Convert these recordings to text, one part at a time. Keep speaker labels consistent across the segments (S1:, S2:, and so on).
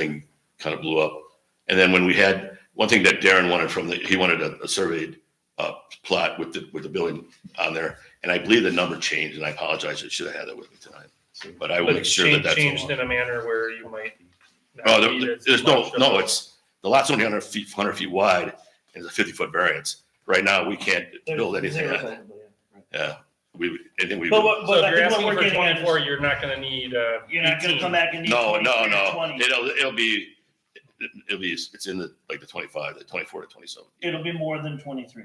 S1: thing kind of blew up. And then when we had, one thing that Darren wanted from the, he wanted a, a surveyed, uh, plot with the, with the building on there. And I believe the number changed and I apologize. I should have had that with me tonight, but I will
S2: But
S1: make
S2: it's
S1: sure that
S2: changed,
S1: that's.
S2: changed in a manner where you might. not
S1: No,
S2: need
S1: there-
S2: as
S1: there's no,
S2: much of
S1: no,
S2: a-
S1: it's, the lot's only hundred feet, hundred feet wide and it's a fifty foot variance. Right now, we can't build anything on it. Yeah, we, I think we.
S3: But
S1: would-
S2: So
S3: what, but
S2: if
S3: I
S2: you're
S3: think what
S2: asking
S3: we're
S2: for
S3: getting at
S2: twenty-four,
S3: is,
S2: you're not gonna need, uh.
S3: you're not gonna
S2: 18.
S3: come back and need
S1: No, no,
S3: twenty-three or
S1: no.
S3: twenty.
S1: It'll, it'll be, it'll be, it's in the, like the twenty-five, the twenty-four to twenty-seven.
S3: It'll be more than twenty-three.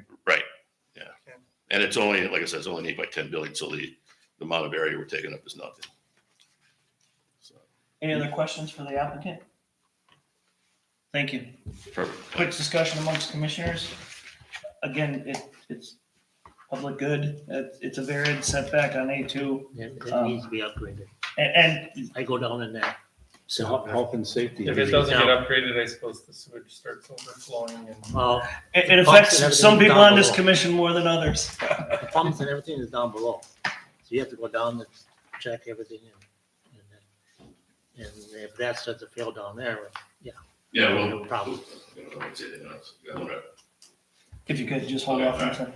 S1: And it's only, like I said, it's only an eight by ten building, so the, the amount of area we're taking up is nothing. So,
S3: Any other questions for the applicant? Thank you.
S1: Perfect.
S3: Quick discussion amongst commissioners. Again, it, it's public good. It's, it's a varied setback on A two.
S4: Yeah, that
S3: Um,
S4: needs to be upgraded.
S3: And, and
S4: I go down in there.
S5: So
S4: So,
S5: health- health and safety.
S2: If it doesn't get upgraded, I suppose the sewage starts overflowing and.
S4: well,
S3: it it
S4: Pumps and
S3: affects some
S4: everything
S3: people
S4: down
S3: on this
S4: below.
S3: commission more than others.
S4: the pumps and everything is down below. So you have to go down and check everything in. and then- And if that starts to fail down there,
S1: Yeah,
S4: no
S1: well.
S4: problem.
S3: If you could, just hold off for a second.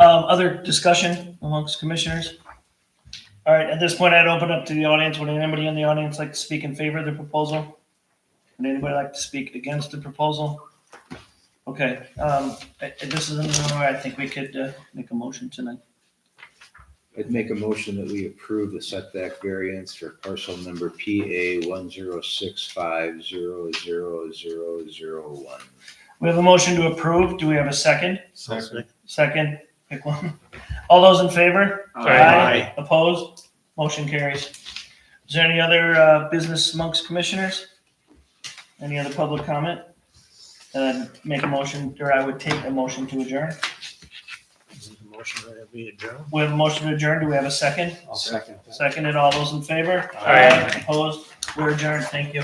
S3: Um, other discussion amongst commissioners? All right, at this point, I'd open up to the audience. Would anybody in the audience like to speak in favor of the proposal? Would anybody like to speak against the proposal? Okay, um, I- I- this is another way I think we could, uh, make a motion tonight.
S5: I'd make a motion that we approve the setback variance for parcel number PA one zero six five zero zero zero zero one.
S3: We have a motion to approve. Do we have a second? Second, pick one. All those in favor?
S2: Aye.
S3: Opposed? Motion carries. Is there any other uh, business amongst commissioners? Any other public comment? Uh, Make a motion, or I would take a motion to adjourn.
S4: Motion that we adjourn.
S3: We have a motion to adjourn. Do we have a second?
S5: I'll second
S3: Seconded. All those in favor?
S2: Aye.
S3: Opposed? We're adjourned. Thank you.